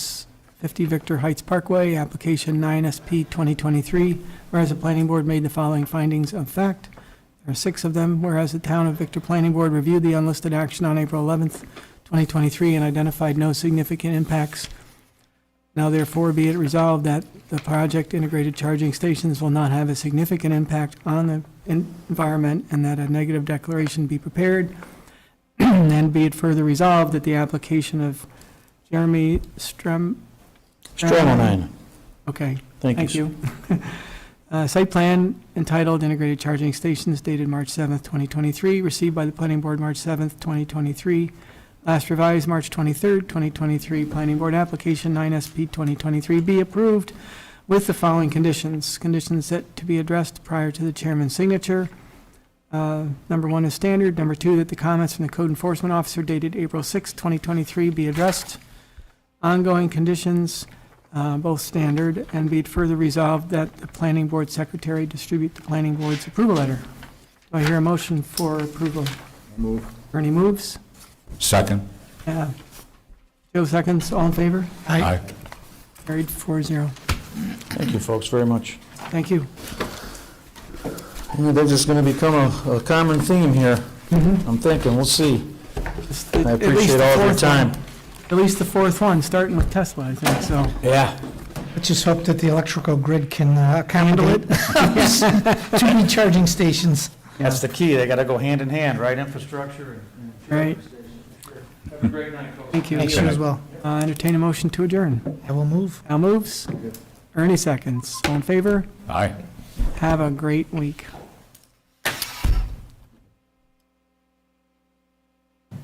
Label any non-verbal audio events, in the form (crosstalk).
50 Victor Heights Parkway, application 9SP 2023, whereas the planning board made the following findings of fact. There are six of them, whereas the town of Victor Planning Board reviewed the unlisted action on April 11th, 2023, and identified no significant impacts. Now therefore be it resolved that the project integrated charging stations will not have a significant impact on the en- environment, and that a negative declaration be prepared. (clears throat) And be it further resolved that the application of Jeremy Strem, Stroman, okay, Um, thank Thank you. you. (laughs) Uh, Site plan entitled Integrated Charging Stations dated March 7th, 2023, received by the Planning Board March 7th, 2023. Last revised March 23rd, 2023. Planning Board application 9SP 2023B approved with the following conditions. Conditions that to be addressed prior to the chairman's signature. Uh, Number one is standard. Number two, that the comments from the code enforcement officer dated April 6th, 2023 be addressed. Ongoing conditions, uh, both standard, and be it further resolved that the planning board secretary distribute the planning board's approval letter. Do I hear a motion for approval? Move. Ernie moves. Second? Uh, Joe seconds. All in favor? Aye. Carried four zero. Thank you, folks, very much. Thank you. Yeah, That is going to become a, a common theme here, I'm thinking, we'll see. Just at- I at least appreciate the all of your fourth time. one. At least the fourth one, starting with Tesla, I think, so. Yeah. Let's just hope that the electrical grid can uh, accommodate (laughs) too many charging stations. That's the key, they got to go hand in hand, right? Infrastructure and. Right. Have a great night, folks. Thank you. Make sure as well. Uh, Entertain a motion to adjourn. I will move. Al moves. Ernie seconds. All in favor? Aye. Have a great week.